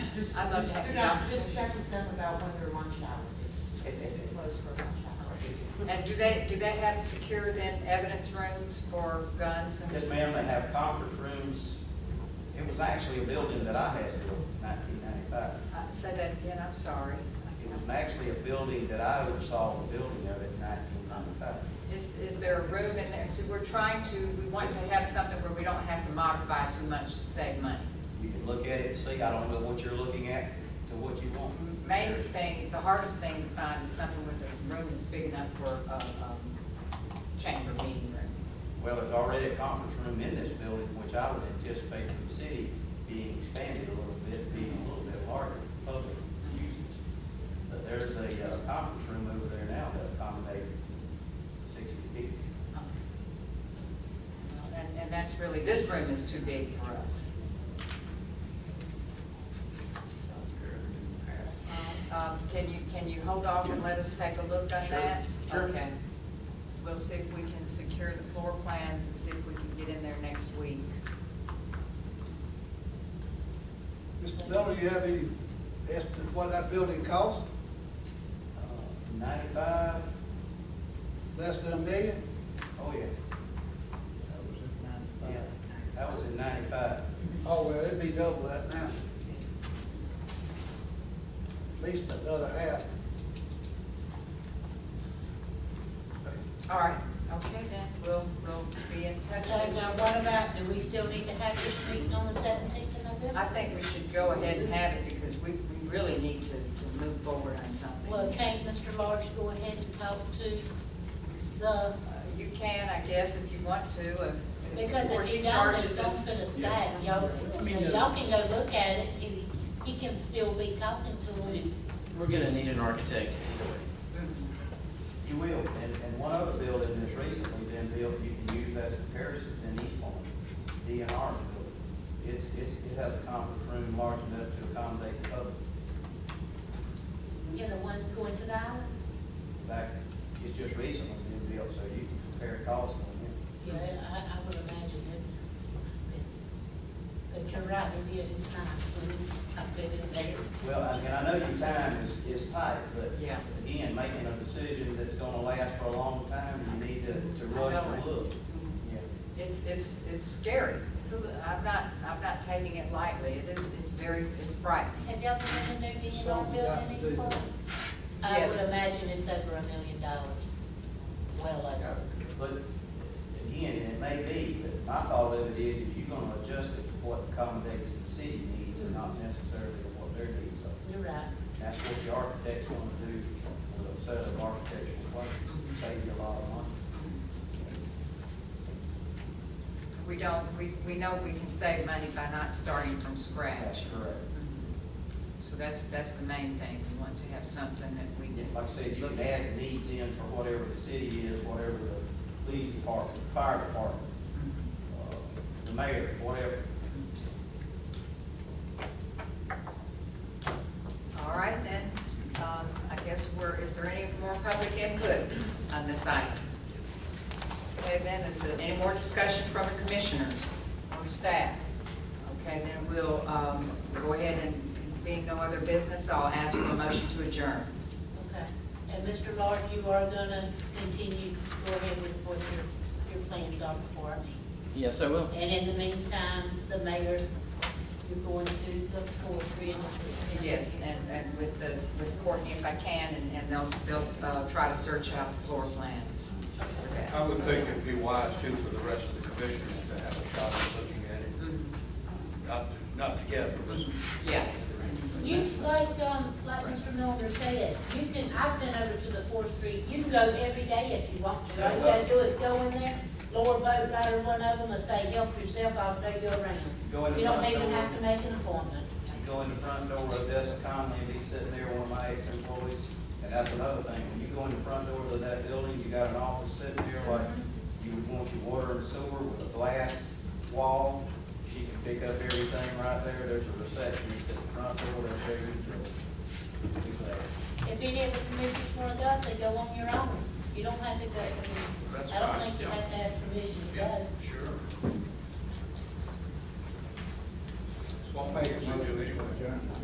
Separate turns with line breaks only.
just.
I'd love to have
just-
the
yeah,
opportunity.
Just check with them about when their lunch hour is, if it closed for lunch hour.
And do they, do they have secure then evidence rooms for guns and?
Yes, ma'am, they have conference rooms. It was actually a building that I had till nineteen ninety-five.
Uh, Say that again, I'm sorry.
It was actually a building that I oversaw the building of it in nineteen ninety-five.
Is, is there a room in there? See, we're trying to, we want to have something where we don't have to modify too much to save money.
You can look at it and see, I don't know what you're looking at to what you want.
Main thing, the hardest thing to find is something with a room that's big enough for a, um, chamber meeting room.
Well, there's already a conference room in this building, which I would anticipate from the city being expanded a little bit, being a little bit larger for public usage. But there's a uh, conference room over there now that accommodates sixty people.
And, and that's really, this room is too big for us. Um, Can you, can you hold off and let us take a look at
Sure,
that?
sure.
Okay. We'll see if we can secure the floor plans and see if we can get in there next week.
Mr. Miller, you have any estimate what that building cost?
Uh, Ninety-five,
Less than a million?
oh yeah, yeah, that was in ninety-five.
Oh, well, it'd be double that now. At least another half.
All right, okay then, we'll, we'll be in touch.
So now what about, do we still need to have this meeting on the seventeenth of November?
I think we should go ahead and have it because we, we really need to, to move forward on something.
Well, can't Mr. Large go ahead and talk to the,
Uh, You can, I guess, if you want to, uh, if.
because
before
if
she
he don't,
charges
it's gonna
us-
put us back. Y'all,
I mean, the-
y'all can go look at it, he, he can still be talking to him.
We're gonna need an architect either way.
You will, and, and one other building that's recently been built, you can use as a comparison in East Point, DNR's building. It's, it's, it has a conference room large enough to accommodate the public,
You know, one going to the island?
In fact, it's just recently been built, so you can compare costs on it.
Yeah, I, I would imagine it's expensive. But you're right, it is, it's not, I've been in there.
Well, I- and I know your time is, is tight, but
Yeah.
again, making a decision that's gonna last for a long time, you need to, to rush
I know
and look.
it.
Yeah.
It's, it's, it's scary. It's a li- I'm not, I'm not taking it lightly. It is, it's very, it's frightening.
Have y'all been in there, do you
So,
know,
yeah,
building
they-
these parks? I would
Yes.
imagine it's over a million dollars, well over.
But again, and it may be, but my thought of it is, if you're gonna adjust it to what accommodates the city needs and not necessarily to what their needs are.
You're right.
That's what the architect's gonna do with a set of architectural plans, save you a lot of money.
We don't, we, we know we can save money by not starting from scratch.
correct.
So that's, that's the main thing. We want to have something that we
Yeah,
can.
Like I said, you can add the needs in for whatever the city is, whatever the police department, fire department,
Mm-hmm.
uh, the mayor, whatever.
All right, then, um, I guess we're, is there any more public input on this item? Okay, then, is there any more discussion from the commissioners or staff? Okay, then we'll, um, go ahead and being no other business, I'll ask for a motion to adjourn.
Okay. And Mr. Large, you are gonna continue, go ahead with what your, your plans are before me.
Yes, I will.
And in the meantime, the mayor, you're going to the forestry and.
Yes, and, and with the, with Courtney if I can, and, and they'll, they'll, uh, try to search out the floor plans. Okay.
I would think it'd be wise too for the rest of the commissioners to have a shot at looking at it,
Mhm.
not, not together, but
Yeah.
You, like, um, like Mr. Miller said, you can, I've been over to the Fourth Street, you can go every day if you want to. All you gotta do is go in there, lower boat rider, one of them, and say, help yourself, I'll throw you
Go in
around.
the
You don't
front
even
door.
have to make an appointment.
You go in the front door of Odessa Conley, and he's sitting there, one of my ex-employees, and that's another thing, when you go in the front door of that building, you got an office sitting there like you would want your water and sewer with a glass wall, she can pick up everything right there, there's a receptionist at the front door, there's every door. Be glad.
If any of the commissioners wanna go, I say, go on your own. You don't have to go, I mean,
That's
I don't
fine,
think you
yeah.
have to ask permission to
Yeah,
go.
sure. What mayor would do anyway.